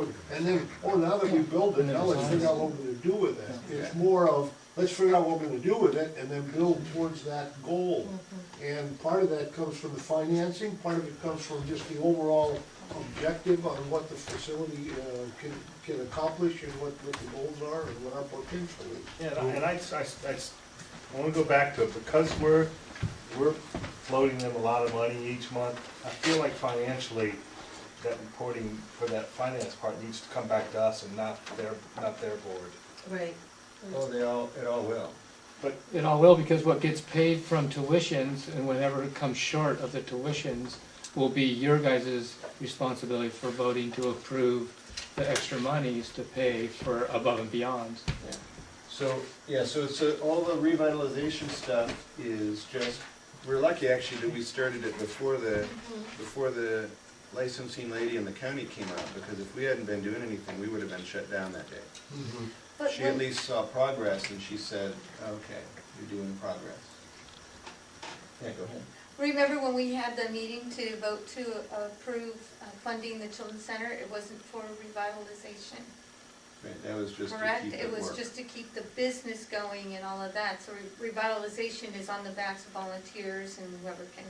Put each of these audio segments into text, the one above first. And then, or now that we build it, now let's figure out what we're gonna do with it. It's more of, let's figure out what we're gonna do with it and then build towards that goal. And part of that comes from the financing, part of it comes from just the overall objective on what the facility, uh, can, can accomplish and what, what the goals are and what our potential is. Yeah, and I, and I, I, I, I wanna go back to it, because we're, we're floating them a lot of money each month, I feel like financially, that reporting for that finance part needs to come back to us and not their, not their board. Right. Oh, they all, it all will. But, It all will, because what gets paid from tuitions and whatever comes short of the tuitions will be your guys' responsibility for voting to approve the extra monies to pay for above and beyond. So, yeah, so, so all the revitalization stuff is just, we're lucky actually that we started it before the, before the licensing lady in the county came out, because if we hadn't been doing anything, we would have been shut down that day. But She at when, least saw progress and she said, okay, you're doing progress. Yeah, go ahead. remember when we had the meeting to vote to approve uh, funding the children's center, it wasn't for revitalization, Right, that was just to correct? keep It it was work. just to keep the business going and all of that, so re- revitalization is on the backs of volunteers and whoever can,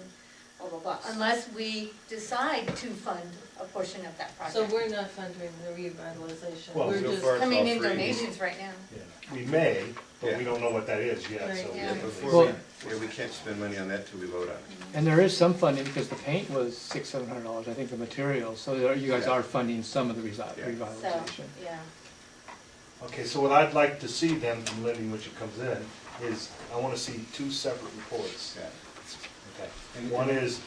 blah, blah, blah. Unless we decide to fund a portion of that So project. we're not funding the revitalization, Well, we're so just, far- Coming in It's all free. donations right now. yeah, we may, but we Yeah. don't know what that is yet, so. Right, we yeah. Yeah, have to- before, Well- we- yeah, we can't spend money on that till we vote on it. And there is some funding, because the paint was six, seven hundred dollars, I think, for materials, so there- you guys Yeah. are funding some of the resi- Yeah. So, revitalization. yeah. Okay, so what I'd like to see then from Libby when she comes in, is I wanna see two separate Mm-hmm. reports. Yeah. Okay. One is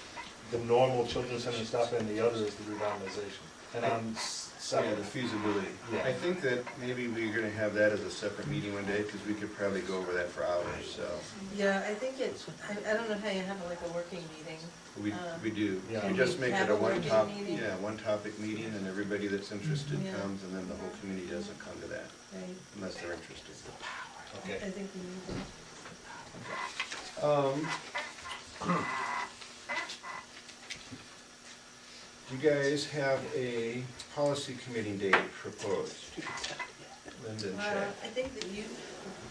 the normal children's center stuff, and the other is the revitalization. And I'm s- Yeah, separate. the feasibility. Yeah. I think that maybe we're gonna have that as a separate meeting one day, because we could probably go over that for hours, so. yeah, I think it's, I, I don't know how you have like a working meeting. We, we do. Yeah. We just make it Uh, Have a a working one top, meeting? yeah, one topic meeting, and everybody that's interested Yeah. comes, and then the whole community doesn't come to that, Right, unless they're interested. Okay. I think we need to. Um, You guys have a policy committee date proposed. Linda and Uh, Chad. I think that you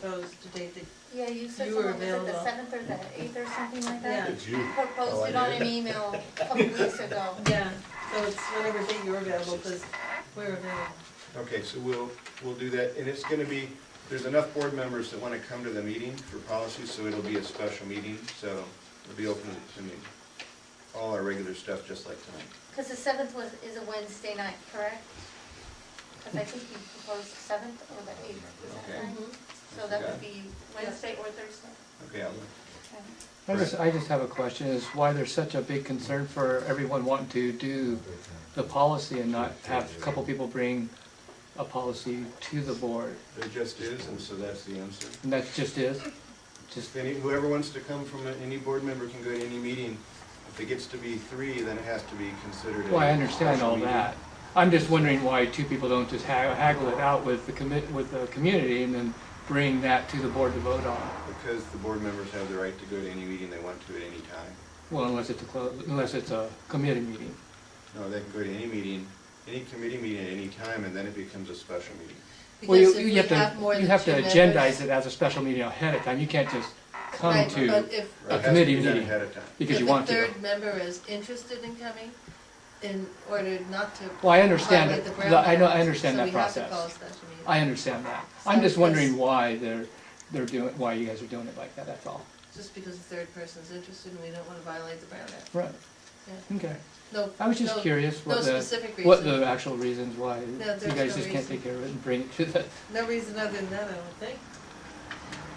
proposed a date that, Yeah, you said You were someone was at the available. seventh or the eighth or something like that? Yeah. Did you? Oh, I Proposed it on did. an email a couple weeks ago. yeah, so it's whatever date you're available, because we're available. Okay, so we'll, we'll do that, and it's gonna be, there's enough board members that wanna come to the meeting for policy, so it'll be a special meeting, so it'll be open, I mean, all our regular stuff, just like tonight. Because the seventh was, is a Wednesday night, correct? Because I think you proposed the seventh or the eighth, is Okay. that Mm-hmm. right? So that would be Wednesday or Thursday. Okay, I'll, Okay. I just, I just have a question, is why there's such a big concern for everyone wanting to do the policy and not have a couple people bring a policy to the board? there just is, and so that's the answer. And that just is, just If any, whoever wants to come from, a- any board member can go to any meeting. If it gets to be three, then it has to be considered. a Well, I understand special all meeting. that. I'm just wondering why two people don't just ha- haggle it out with the commit, with the community and then bring that to the board to vote on. Because the board members have the right to go to any meeting they want to at any time. Well, unless it's a, clo- unless it's a committee meeting. No, they can go to any meeting, any committee meeting at any time, and then it becomes a special meeting. Well, you Because if you we have to more You than have to two agendize members- it as a special meeting ahead of time. You can't just come Right, to, but if- Or it has to committee be done meeting. Ahead of time. because you want to. If the third member is interested in coming, in order not to Well, I understand, violate the it. Brown The- I know, I Act, understand that So we have to call a process. special meeting. I understand that. So I'm just this- wondering why they're, they're doing, why you guys are doing it like that, that's all. Just because the third person's interested and we don't want to violate the Brown Act. Right, Yeah. okay. No, I was just no- curious No what the, specific what reason. the actual reasons why you there's guys just no can't reason. take care of it and bring it to the No reason other than that, I don't think.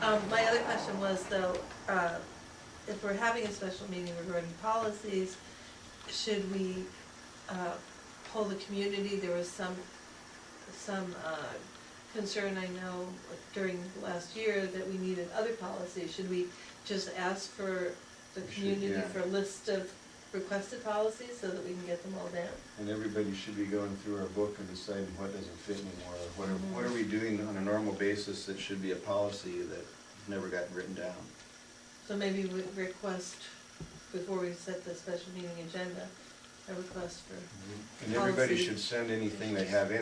Um, my other question was though, uh, if we're having a special meeting regarding policies, should we, uh, poll the community? There was some, some, uh, concern, I know, during last year that we needed other policies. Should we just ask for We the should, community yeah. for a list of requested policies so that we can get them all down? And everybody should be going through our book and deciding what doesn't fit anymore, or what are, what are we doing on a normal basis that should be a policy that never got written down? So maybe we request, before we set the special meeting agenda, a request for And everybody Policy. should send anything they have in.